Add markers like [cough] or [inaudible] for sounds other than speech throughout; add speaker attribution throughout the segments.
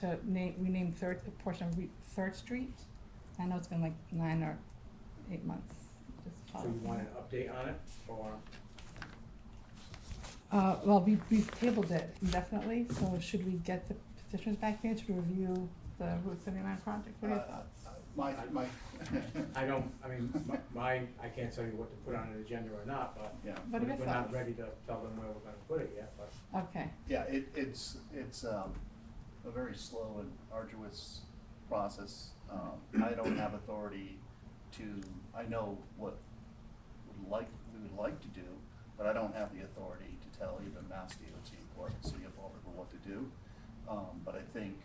Speaker 1: to name, rename Third, a portion of Re- Third Street. I know it's been like nine or eight months. Just
Speaker 2: So you
Speaker 1: follow.
Speaker 2: want an update on it, or,
Speaker 1: Uh, well, we, we've tabled it indefinitely, so should we get the petitioners back in to review the Route seventy-nine project? What are your
Speaker 3: Uh,
Speaker 1: thoughts?
Speaker 3: My, my.
Speaker 2: I don't, I mean,
Speaker 3: [laughs]
Speaker 2: my- my, I can't tell you what to put on an agenda or not, but
Speaker 3: Yeah,
Speaker 1: What are
Speaker 2: we're
Speaker 1: your
Speaker 2: we're not
Speaker 1: thoughts?
Speaker 2: ready to tell them where we're gonna put it yet, but
Speaker 1: Okay,
Speaker 3: yeah, it, it's, it's, um, a very slow and arduous process. Um, I don't have authority to, I know what would like, we would like to do, but I don't have the authority to tell either Mass DOT or the City of Baltimore what to do. Um, but I think,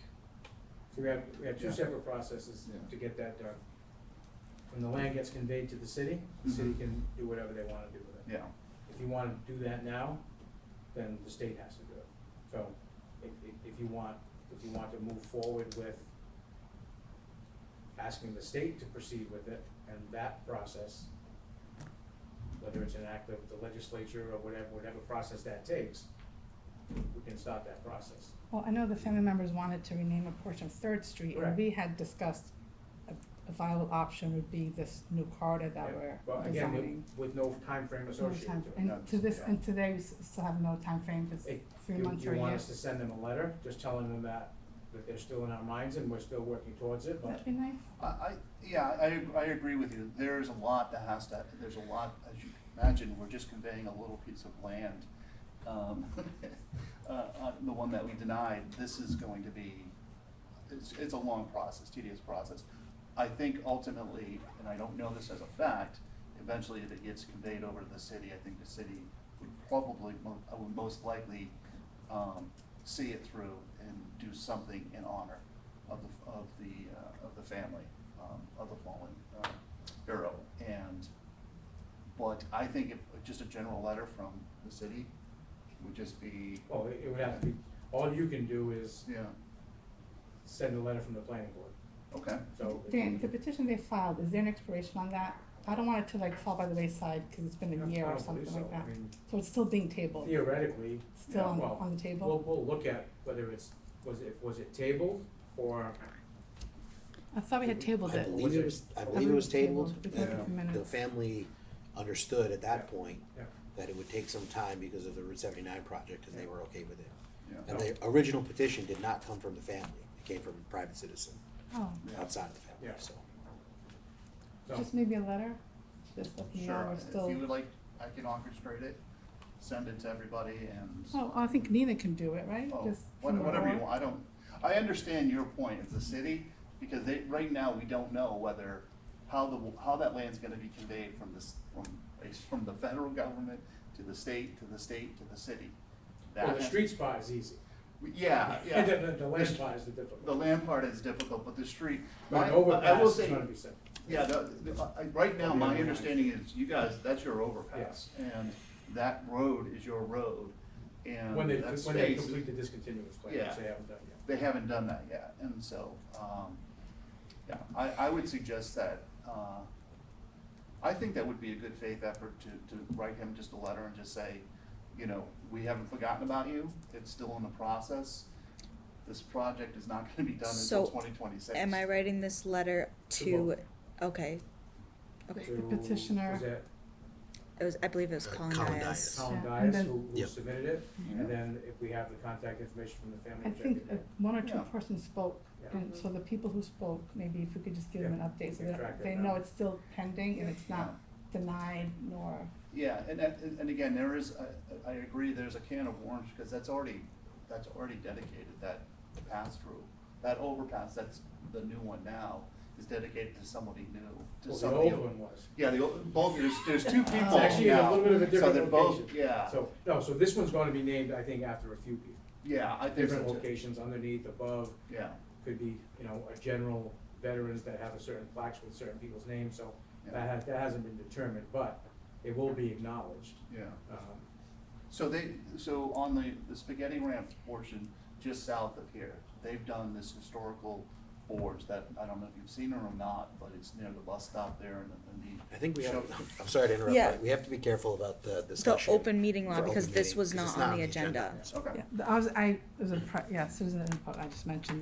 Speaker 2: So we have, we have two
Speaker 3: Yeah.
Speaker 2: separate processes
Speaker 3: Yeah.
Speaker 2: to get that done. When the land gets conveyed to the city, the city
Speaker 3: Mhm.
Speaker 2: can do whatever they wanna do with it.
Speaker 3: yeah,
Speaker 2: If you wanna do that now, then the state has to do it. So if, if, if you want, if you want to move forward with asking the state to proceed with it and that process, whether it's an act of the legislature or whatever, whatever process that takes, we can start that process.
Speaker 1: well, I know the family members wanted to rename a portion of Third Street, and
Speaker 2: Correct.
Speaker 1: we had discussed a, a viable option would be this new corridor that
Speaker 2: Yeah.
Speaker 1: we're
Speaker 2: But again, with-
Speaker 1: designing.
Speaker 2: with no timeframe
Speaker 1: No
Speaker 2: associated to
Speaker 1: time-
Speaker 2: it.
Speaker 1: And
Speaker 3: that's-
Speaker 1: to this,
Speaker 3: yeah.
Speaker 1: and today, we s- still have no time frame. it's
Speaker 2: Hey,
Speaker 1: three
Speaker 2: You-
Speaker 1: months or a year.
Speaker 2: You want us to send them a letter, just telling them that, that they're still in our minds and we're still working towards it, but
Speaker 1: That'd be nice.
Speaker 3: I, I, yeah, I, I agree with you. There's a lot that has to, there's a lot, as you can imagine, we're just conveying a little piece of land. Um, [laughs] uh, uh, the one that we denied, this is going to be, it's, it's a long process, tedious process. I think ultimately, and I don't know this as a fact, eventually if it gets conveyed over to the city, I think the city would probably, mo- uh, would most likely, um, see it through and do something in honor of the, of the, uh, of the family, um, of the fallen, uh, hero. And, but I think if, just a general letter from the city would just be,
Speaker 2: Well, it it would have to be, all you can do is
Speaker 3: yeah,
Speaker 2: send a letter from the planning board,
Speaker 3: okay.
Speaker 2: so. if-
Speaker 1: Dan, the petition they filed, is there an expiration on that? I don't want it to like fall by the wayside, cause it's been
Speaker 2: I
Speaker 1: a
Speaker 2: don't
Speaker 1: year or
Speaker 2: believe
Speaker 1: something
Speaker 2: so.
Speaker 1: like
Speaker 2: I
Speaker 1: that.
Speaker 2: mean,
Speaker 1: So it's still being tabled,
Speaker 2: Theoretically,
Speaker 1: still on,
Speaker 2: well,
Speaker 1: on the
Speaker 2: we'll,
Speaker 1: table?
Speaker 2: we'll look at whether it's, was it, was it tabled or,
Speaker 1: I thought we had tabled
Speaker 4: I
Speaker 1: it.
Speaker 4: believe it was, I believe it was tabled,
Speaker 1: We took it
Speaker 4: and
Speaker 1: from
Speaker 4: the
Speaker 1: minutes.
Speaker 4: family understood at that point
Speaker 2: yeah,
Speaker 4: that it would take some time because of the Route seventy-nine project, and they were okay with it.
Speaker 3: Yeah,
Speaker 4: And the original petition did not come from the family, it came from a private citizen
Speaker 1: Oh,
Speaker 3: yeah.
Speaker 4: outside of the family,
Speaker 2: Yeah.
Speaker 4: so.
Speaker 2: so,
Speaker 1: just maybe a letter, just let them know
Speaker 3: Sure,
Speaker 1: we're
Speaker 3: if you
Speaker 1: still,
Speaker 3: would like, I can orchestrate it, send it to everybody and,
Speaker 1: oh, I think Nina can do it, right?
Speaker 3: oh,
Speaker 1: Just
Speaker 3: what-
Speaker 1: from the
Speaker 3: whatever you
Speaker 1: board?
Speaker 3: want, I don't, I understand your point as a city, because they, right now, we don't know whether, how the, how that land's gonna be conveyed from this, from, from the federal government to the state, to the state, to the city.
Speaker 2: well, the
Speaker 3: That-
Speaker 2: street spot is easy. [laughs]
Speaker 3: Yeah, yeah.
Speaker 2: The, the- the land
Speaker 3: The-
Speaker 2: spot is the
Speaker 3: The
Speaker 2: difficult.
Speaker 3: land part is difficult, but the street.
Speaker 2: But
Speaker 3: my-
Speaker 2: an
Speaker 3: I will
Speaker 2: overpass is
Speaker 3: say-
Speaker 2: gonna be simple.
Speaker 3: Yeah, the, the, uh, I, I- right now, my understanding is you guys, that's your overpass. And that road is your road and
Speaker 2: When they,
Speaker 3: that
Speaker 2: when they
Speaker 3: space,
Speaker 2: complete the discontinuous plan,
Speaker 3: Yeah.
Speaker 2: which they haven't done yet.
Speaker 3: they haven't done that yet. And so, um, yeah, I, I would suggest that, uh, I think that would be a good faith effort to, to write him just a letter and just say, you know, we haven't forgotten about you. It's still in the process. This project is not gonna be done until
Speaker 5: So,
Speaker 3: twenty twenty-six.
Speaker 5: Am I writing this letter
Speaker 2: To
Speaker 5: to,
Speaker 2: both.
Speaker 5: okay, Okay.
Speaker 2: to-
Speaker 1: The petitioner.
Speaker 2: Was that
Speaker 5: it was, I believe it was
Speaker 4: Uh,
Speaker 5: Colin
Speaker 4: Colin
Speaker 5: Dias.
Speaker 4: Dias.
Speaker 1: Yeah,
Speaker 2: Colin
Speaker 1: and
Speaker 2: Dias
Speaker 1: then-
Speaker 2: who, who
Speaker 4: Yep.
Speaker 2: submitted it?
Speaker 3: Yeah.
Speaker 2: And then if we have the contact information from the family
Speaker 1: I think
Speaker 2: executive,
Speaker 1: that one or two
Speaker 3: Yeah.
Speaker 1: persons spoke,
Speaker 2: Yeah.
Speaker 1: and so the people who spoke, maybe if we could just give them an
Speaker 2: Yeah,
Speaker 1: update, so
Speaker 2: we can track
Speaker 1: that
Speaker 2: that
Speaker 1: they
Speaker 2: down.
Speaker 1: know it's still pending and it's not denied nor,
Speaker 3: Yeah, and, that- and, and again, there is, I, I agree, there's a can of worms, because that's already, that's already dedicated, that pass-through. That overpass, that's the new one now, is dedicated to somebody new, to
Speaker 2: well, the
Speaker 3: somebody.
Speaker 2: old one was.
Speaker 3: Yeah, the old, both, there's, there's two
Speaker 2: It's
Speaker 3: people
Speaker 2: actually in a
Speaker 3: now,
Speaker 2: little bit of a
Speaker 3: so they're
Speaker 2: different
Speaker 3: both-
Speaker 2: location.
Speaker 3: Yeah,
Speaker 2: So, no, so this one's gonna be named, I think, after a few people.
Speaker 3: yeah, I think so
Speaker 2: Different
Speaker 3: too,
Speaker 2: locations underneath, above,
Speaker 3: yeah,
Speaker 2: could be, you know, a general veterans that have a certain plaques with certain people's names, so
Speaker 3: Yeah.
Speaker 2: that has, that hasn't been determined, but it will be acknowledged.
Speaker 3: yeah.
Speaker 2: Um,
Speaker 3: So they, so on the, the spaghetti ramp portion, just south of here, they've done this historical boards that, I don't know if you've seen it or not, but it's near the bus stop there and the, and the.
Speaker 4: I think we have,
Speaker 3: show-
Speaker 4: [laughs] I'm sorry to interrupt,
Speaker 5: Yeah.
Speaker 4: but we have to be careful about the
Speaker 5: The
Speaker 4: discussion.
Speaker 5: open meeting
Speaker 4: For
Speaker 5: law,
Speaker 4: open
Speaker 5: because this
Speaker 4: meeting,
Speaker 5: was
Speaker 4: because
Speaker 5: not
Speaker 4: it's
Speaker 5: on the agenda.
Speaker 3: Okay.
Speaker 1: yeah, I was, I, it was a, pri- yeah, citizen input, I just mentioned